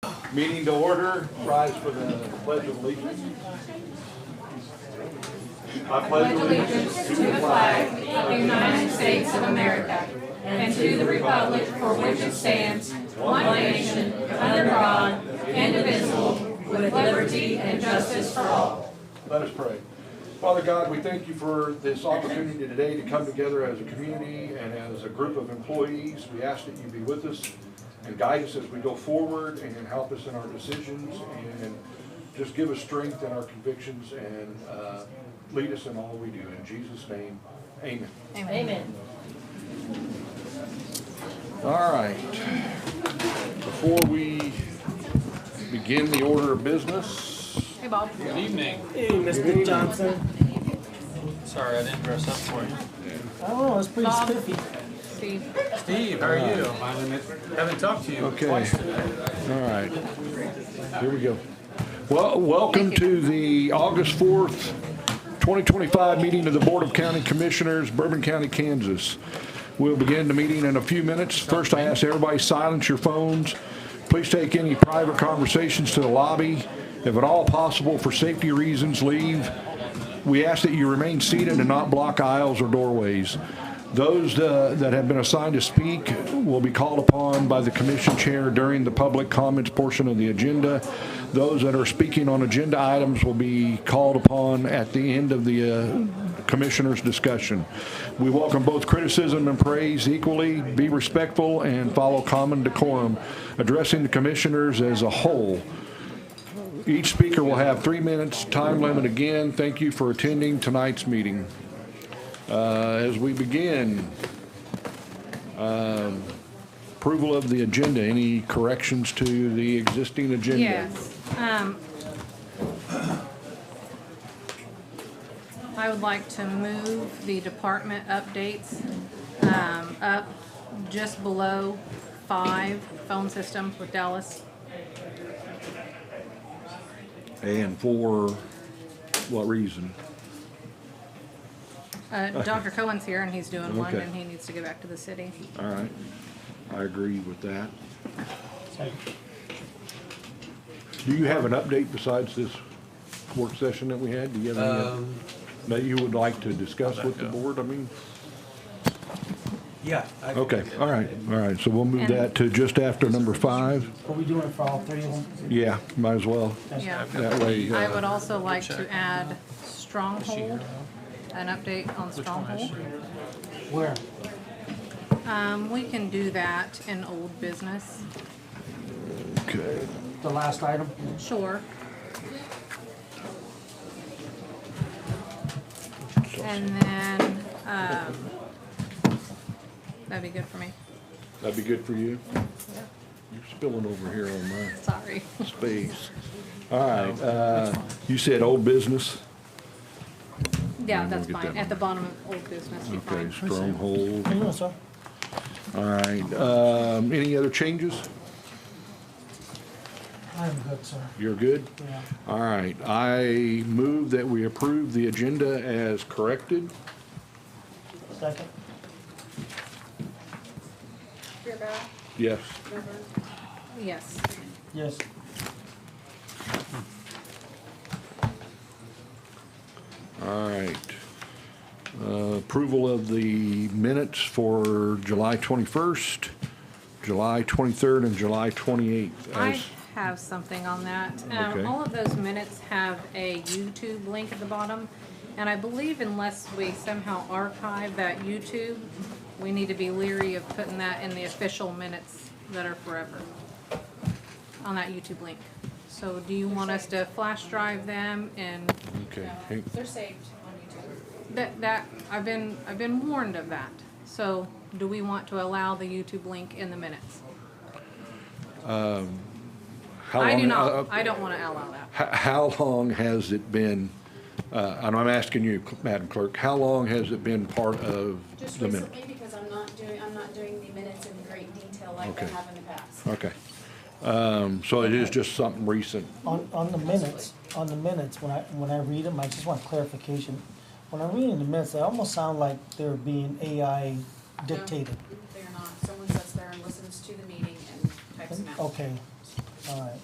Meeting to order, rise for the pledge of allegiance. I pledge allegiance allegiance to the flag of the United States of America and to the republic for which it stands, one nation, under God, indivisible, with liberty and justice for all. Let us pray. Father God, we thank you for this opportunity today to come together as a community and as a group of employees. We ask that you be with us and guide us as we go forward and help us in our decisions and just give us strength in our convictions and uh, lead us in all we do. In Jesus' name, amen. Amen. All right. Before we begin the order of business, Hey, Bob. Good evening. Hey, Mr. Johnson. Sorry, I didn't dress up for you. I don't know, it's Oh, pretty Bob. spiffy. Steve. Steve, how are you? I haven't talked to you Okay. twice today. all right, here we go. Well, welcome to the August 4th, 2025 meeting of the Board of County Commissioners, Bourbon County, Kansas. We'll begin the meeting in a few minutes. First, I ask everybody silence your phones. Please take any private conversations to the lobby. If at all possible, for safety reasons, leave. We ask that you remain seated and not block aisles or doorways. Those uh, that have been assigned to speak will be called upon by the commission chair during the public comments portion of the agenda. Those that are speaking on agenda items will be called upon at the end of the uh, commissioner's discussion. We welcome both criticism and praise equally. Be respectful and follow common decorum, addressing the commissioners as a whole. Each speaker will have three minutes, time limit again. Thank you for attending tonight's meeting. Uh, As we begin, um, approval of the agenda, any corrections to the existing agenda? Yes. um, I would like to move the department updates um, up just below five, phone system with Dallas. And for what reason? Uh, Dr. Cohen's here and he's doing one Okay. and he needs to go back to the city. All right, I agree with that. Do you have an update besides this work session that we had? Do you have any Um, that you would like to discuss with the board? I mean. yeah. I- Okay, all right, all right, so we'll move And- that to just after number five. Are we doing it for all three of them? Yeah, might as well, Yeah. that way. I uh, would also like to add Stronghold, an update on Stronghold. Where? Um, we can do that in old business, okay. The last item? sure. And then, um, that'd be good for me, That'd be good for you? You're spilling over here on my sorry. space. All right, uh, you said old business? Yeah, we'll that's get fine, that at the bottom of old business, you Okay, find. stronghold, I know, sir. all right, um, any other changes? I'm good, sir. You're good? Yeah. All right, I move that we approve the agenda as corrected. Second? Yes, Yes, Yes. all right. Uh, Approval of the minutes for July 21st, July 23rd, and July 28th. I as- have something on that. Um, Okay. all of those minutes have a YouTube link at the bottom, and I believe unless we somehow archive that YouTube, we need to be leery of putting that in the official minutes that are forever on that YouTube link. So do you want us to flash drive them and Okay, hang- They're saved on YouTube. that, that, I've been, I've been warned of that. So do we want to allow the YouTube link in the minutes? how I do long- uh, not, I don't wanna allow that. h- How long has it been, uh, and I'm asking you, Madam Clerk, how long has it been part of Just the minute? recently, because I'm not doing, I'm not doing the minutes in great detail like I Okay. have in the past. Okay, Um, so it is just something recent. On, on the minutes, on the minutes, when I, when I read them, I just want clarification. When I'm reading the minutes, they almost sound like they're being AI dictated. No, They're not. Someone sits there and listens to the meeting and types them out. Okay, all right.